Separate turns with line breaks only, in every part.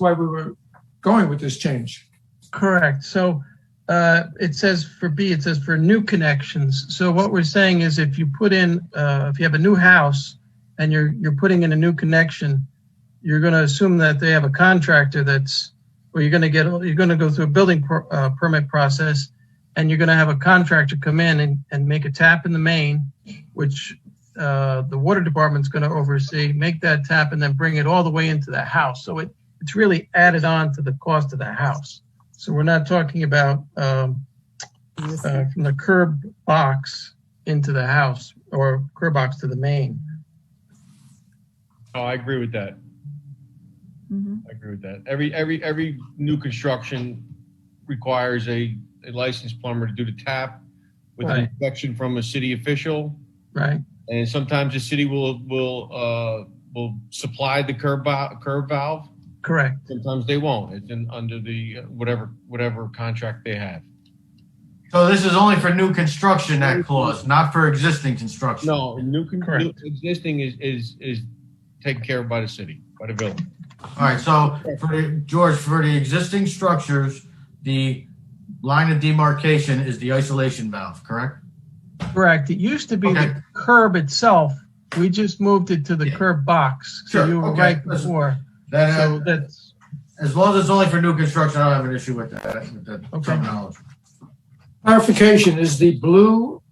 why we were going with this change.
Correct. So uh, it says for B, it says for new connections. So what we're saying is if you put in, uh, if you have a new house and you're, you're putting in a new connection, you're going to assume that they have a contractor that's, or you're going to get, you're going to go through a building per, uh, permit process and you're going to have a contractor come in and, and make a tap in the main, which uh, the water department's going to oversee, make that tap and then bring it all the way into the house. So it, it's really added on to the cost of the house. So we're not talking about um, uh, from the curb box into the house or curb box to the main.
Oh, I agree with that.
Mhm.
I agree with that. Every, every, every new construction requires a, a licensed plumber to do the tap with an
Right.
inspection from a city official.
Right.
And sometimes the city will, will, uh, will supply the curb, val- curb valve.
Correct.
Sometimes they won't. It's in, under the, uh, whatever, whatever contract they have.
So this is only for new construction, that clause, not for existing construction?
No, new, con- new
Correct.
existing is, is, is taken care of by the city, by the village.
All right, so for the, George, for the existing structures, the line of demarcation is the isolation valve, correct?
Correct. It used to be
Okay.
the curb itself. We just moved it to the
Yeah.
curb box. So
Sure.
you were
Okay.
right
Listen. uh,
before. So
That, uh,
that's
as long as it's only for new construction, I don't have an issue with that, with that
Okay.
terminology.
Clarification, is the blue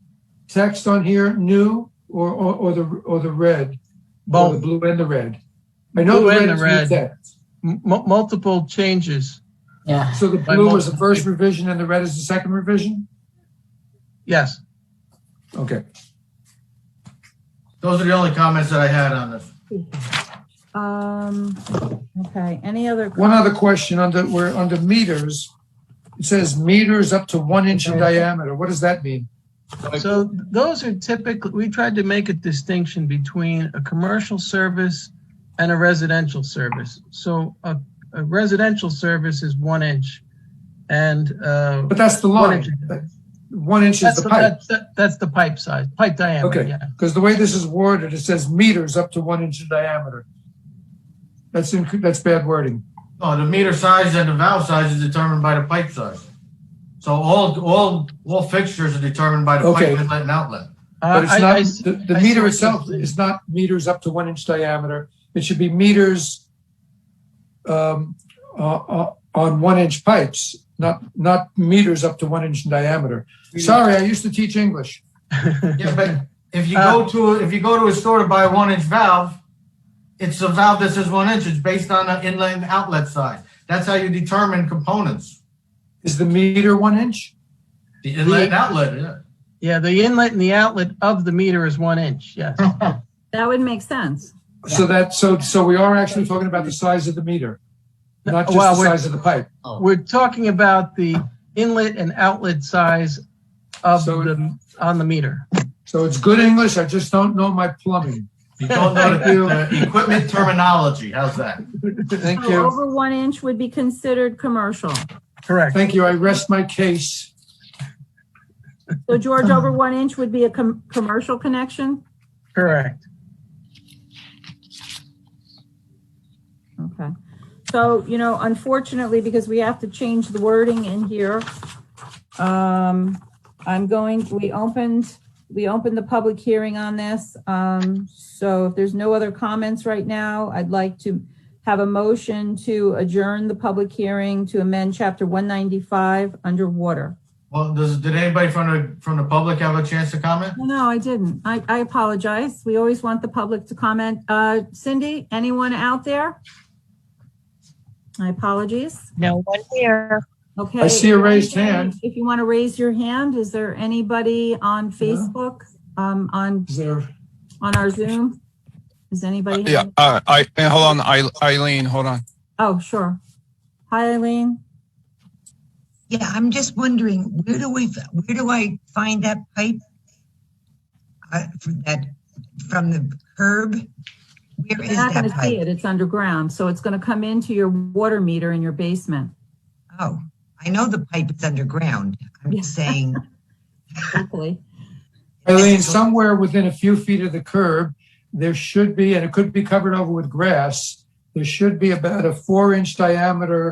text on here new or, or, or the, or the red? Or The
both
blue and the red. I know the
Blue and
red
the
is new
red.
text.
m- multiple changes.
Yeah,
So the
By
blue
multiple.
is the first revision and the red is the second revision?
Yes.
Okay.
Those are the only comments that I had on this.
Um, okay, any other?
One other question under, we're under meters. It says meters up to one inch in diameter. What does that mean?
So those are typically, we tried to make a distinction between a commercial service and a residential service. So a, a residential service is one inch and, uh,
But that's the
One
line.
inch.
That- One inch is
That's,
the
the,
pipe.
that's, that- that's the pipe size, pipe diameter.
Okay.
Yeah.
Because the way this is worded, it says meters up to one inch in diameter. That's, inc- that's bad wording.
Oh, the meter size and the valve size is determined by the pipe size. So all, all, all fixtures are determined by the
Okay.
pipe inlet and outlet.
Uh,
But
I-
it's not,
I-
the, the
I see what
meter
you're
itself
saying.
is not meters up to one inch diameter. It should be meters um, uh, uh, on one inch pipes, not, not meters up to one inch in diameter. Sorry, I used to teach English.
Yeah, but if you go to, if you go to a store to buy a one inch valve, it's a valve that says one inch, it's based on the inlet and outlet size. That's how you determine components,
Is the meter one inch?
the inlet and outlet, yeah.
yeah. The inlet and the outlet of the meter is one inch. Yes.
Oh.
That would make sense.
So that, so, so we are actually talking about the size of the meter, not just
Well,
the
we're-
size of the pipe.
We're talking about the inlet and outlet size of
So-
the, on the meter.
So it's good English, I just don't know my plumbing.
You don't know the the equipment terminology, how's that?
Thank
So
you.
Oh, Over one inch would be considered commercial.
Correct.
Thank you, I rest my case.
So George, over
Uh-huh.
one inch would be a com- commercial connection?
Correct.
Okay. So, you know, unfortunately, because we have to change the wording in here, um, I'm going, we opened, we opened the public hearing on this. Um, so if there's no other comments right now, I'd like to have a motion to adjourn the public hearing to amend chapter 195 underwater.
Well, does, did anybody from the, from the public have a chance to comment?
No, No, I didn't. I, I apologize. We always want the public to comment. Uh, Cindy, anyone out there? My apologies.
no one here.
Okay.
I see a raised hand.
If you want to raise your hand, is there anybody on Facebook, um, on,
Is there?
on our Zoom? Is anybody?
Yeah, uh, I, and hold on, Eil- Eileen, hold on.
Oh, sure. Hi, Eileen.
Yeah, I'm just wondering, where do we, where do I find that pipe? Uh, from that, from the curb? Where
You're
is
not going
that
to see
pipe?
it. It's underground. So it's going to come into your water meter in your basement.
Oh, I know the pipe is underground. I'm just saying.
Hopefully.
Eileen, somewhere within a few feet of the curb, there should be, and it could be covered over with grass, there should be about a four inch diameter